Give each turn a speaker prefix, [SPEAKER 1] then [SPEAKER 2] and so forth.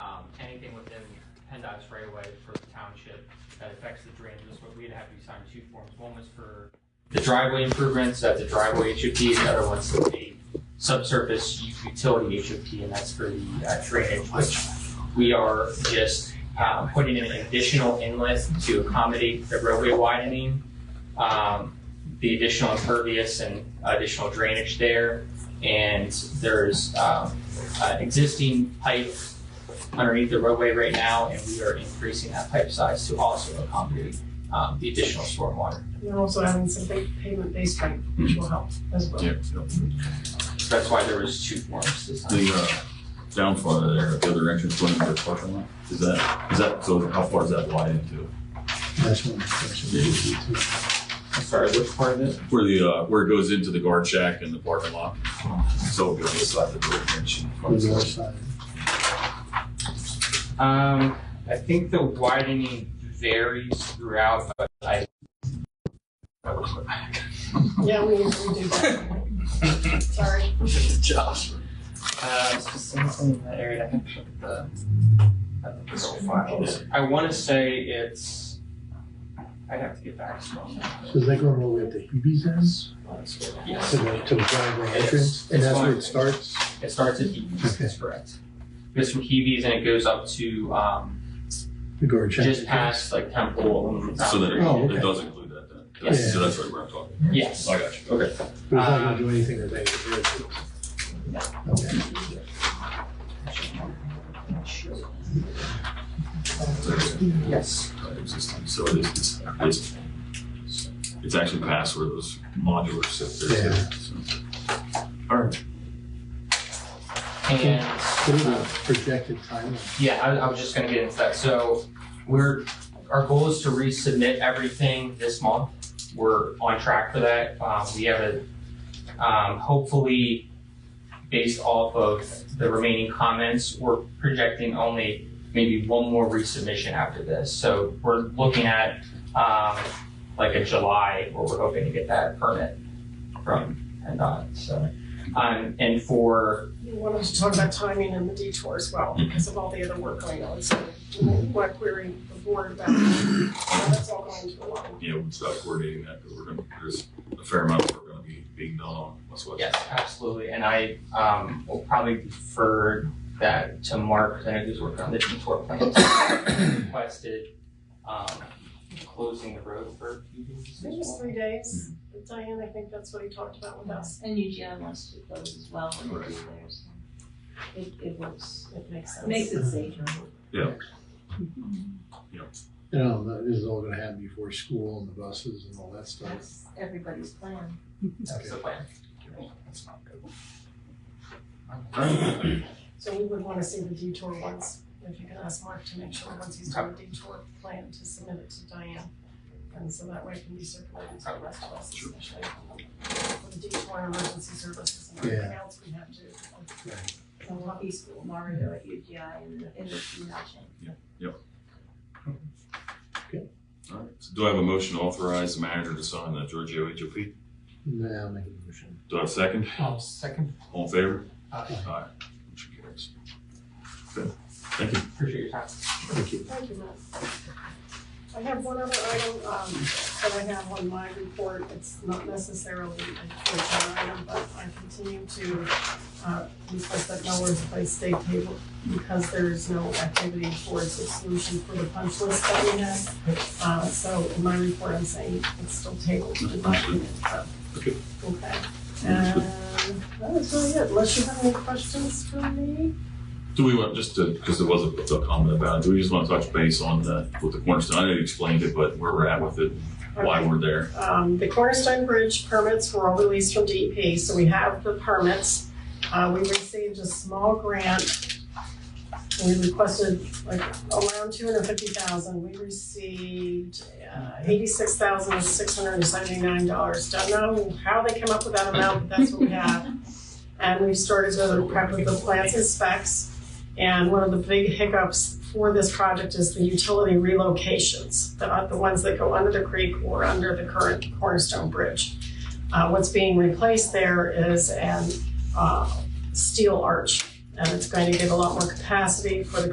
[SPEAKER 1] Um, anything within PennDOT's right away for the township that affects the drainages, but we'd have you sign two forms. One was for the driveway improvements that the driveway HOP, the other one's the subsurface utility HOP, and that's for the uh, drainage, which we are just uh, putting in an additional inlet to accommodate the roadway widening, um, the additional impervious and additional drainage there. And there's um, an existing pipe underneath the roadway right now, and we are increasing that pipe size to also accommodate um, the additional stormwater.
[SPEAKER 2] They're also adding some big pavement base pipe, which will help as well.
[SPEAKER 1] So that's why there was two forms this time.
[SPEAKER 3] The uh, downfall of there, the other entrance going into the parking lot, is that, is that, so how far is that wide into?
[SPEAKER 4] That's one, that's one.
[SPEAKER 1] Sorry, which part of it?
[SPEAKER 3] Where the, uh, where it goes into the guard shack and the parking lot? So it goes inside the door entrance.
[SPEAKER 4] The north side.
[SPEAKER 1] Um, I think the widening varies throughout, but I.
[SPEAKER 2] Yeah, we, we do that. Sorry.
[SPEAKER 1] Uh, specifically in that area, I can look at the, at the physical files. I wanna say it's, I'd have to get back to you.
[SPEAKER 4] So is that going all the way up to Hebe's end?
[SPEAKER 1] Yes,
[SPEAKER 4] To the, to the driveway
[SPEAKER 1] Yes.
[SPEAKER 4] entrance? And that's where it
[SPEAKER 1] It's
[SPEAKER 4] starts?
[SPEAKER 1] it starts at Hebe's, that's correct. It's from Hebe's and it goes up to, um,
[SPEAKER 4] The guard shack?
[SPEAKER 1] just past like Temple. and-
[SPEAKER 3] So then
[SPEAKER 4] Oh,
[SPEAKER 3] it-
[SPEAKER 4] okay.
[SPEAKER 3] it does include that then?
[SPEAKER 1] Yes.
[SPEAKER 3] So that's right where I'm talking.
[SPEAKER 1] Yes,
[SPEAKER 3] I got you. Okay.
[SPEAKER 4] But it's not
[SPEAKER 1] Um,
[SPEAKER 4] going to do anything to that. Okay.
[SPEAKER 1] yes.
[SPEAKER 3] Existing, so it is, it's- it's, it's actually past where those modular sit there.
[SPEAKER 4] Yeah.
[SPEAKER 3] so. All right.
[SPEAKER 1] And
[SPEAKER 4] What is the projected timeline?
[SPEAKER 1] Yeah, I, I was just gonna get into that. So we're, our goal is to resubmit everything this month. We're on track for that. Um, we have a, um, hopefully, based off of the remaining comments, we're projecting only maybe one more resubmission after this. So we're looking at, um, like a July where we're hoping to get that permit from PennDOT, so. Um, and for
[SPEAKER 2] You wanted to talk about timing and the detour as well, because of all the other work going on, so what query the board about, how that's all going to align.
[SPEAKER 3] you know, we start coordinating that, because we're gonna, there's a fair amount of work gonna be being done on what's what.
[SPEAKER 1] Yes, absolutely, and I, um, will probably defer that to Mark, because I know he's working on the detour plans. Requested, um, closing the road for a few days.
[SPEAKER 2] Maybe it's three days, Diane, I think that's what he talked about with us,
[SPEAKER 5] And UGM wants to close as well when they do theirs. It, it works,
[SPEAKER 2] it makes sense.
[SPEAKER 5] makes it safer.
[SPEAKER 4] You know, that- this is all going to happen before school and the buses and all that stuff.
[SPEAKER 5] That's everybody's plan.
[SPEAKER 1] That's the plan. That's not good.
[SPEAKER 2] So we would want to see the detour once, if you can ask Mark to make sure, once he's done the detour plan, to submit it to Diane. And so that way it can be circulated to the rest of us, especially for the detour and emergency services and everything else we have to.
[SPEAKER 4] Right.
[SPEAKER 5] And we'll be school Mario at UGI in the, in the nothing.
[SPEAKER 3] All right, so do I have a motion to authorize the manager to sign the Giorgio HOP?
[SPEAKER 4] Now make a motion.
[SPEAKER 3] Do I have a second?
[SPEAKER 1] Um, second, uh,
[SPEAKER 3] All in favor?
[SPEAKER 1] Aye.
[SPEAKER 3] Aye. Motion carries. Good, thank you.
[SPEAKER 1] appreciate your time.
[SPEAKER 4] Thank you.
[SPEAKER 2] Thank you, Matt. I have one other item, um, that I have on my report, it's not necessarily a full-time item, but I continue to, uh, request that mowers by state table, because there is no activity towards the solution for the punch list that we have. Uh, so in my report, I'm saying it's still tabled, in my opinion, so.
[SPEAKER 3] Okay.
[SPEAKER 2] Okay, and that is really it, unless you have any questions for me?
[SPEAKER 3] Do we want, just to, because there was a, a comment about it, do we just want to touch base on the, with the cornerstone? I know you explained it, but where we're at with it, why we're there.
[SPEAKER 2] Um, the Cornerstone Bridge permits were all released from DEP, so we have the permits. Uh, we received a small grant. We requested like around two hundred fifty thousand. We received uh, eighty-six thousand six hundred and seventy-nine dollars. Don't know how they came up with that amount, but that's what we have. And we've started to prep with the plans and specs. And one of the big hiccups for this project is the utility relocations, the, the ones that go under the creek or under the current Cornerstone Bridge. Uh, what's being replaced there is an, uh, steel arch, and it's going to give a lot more capacity for the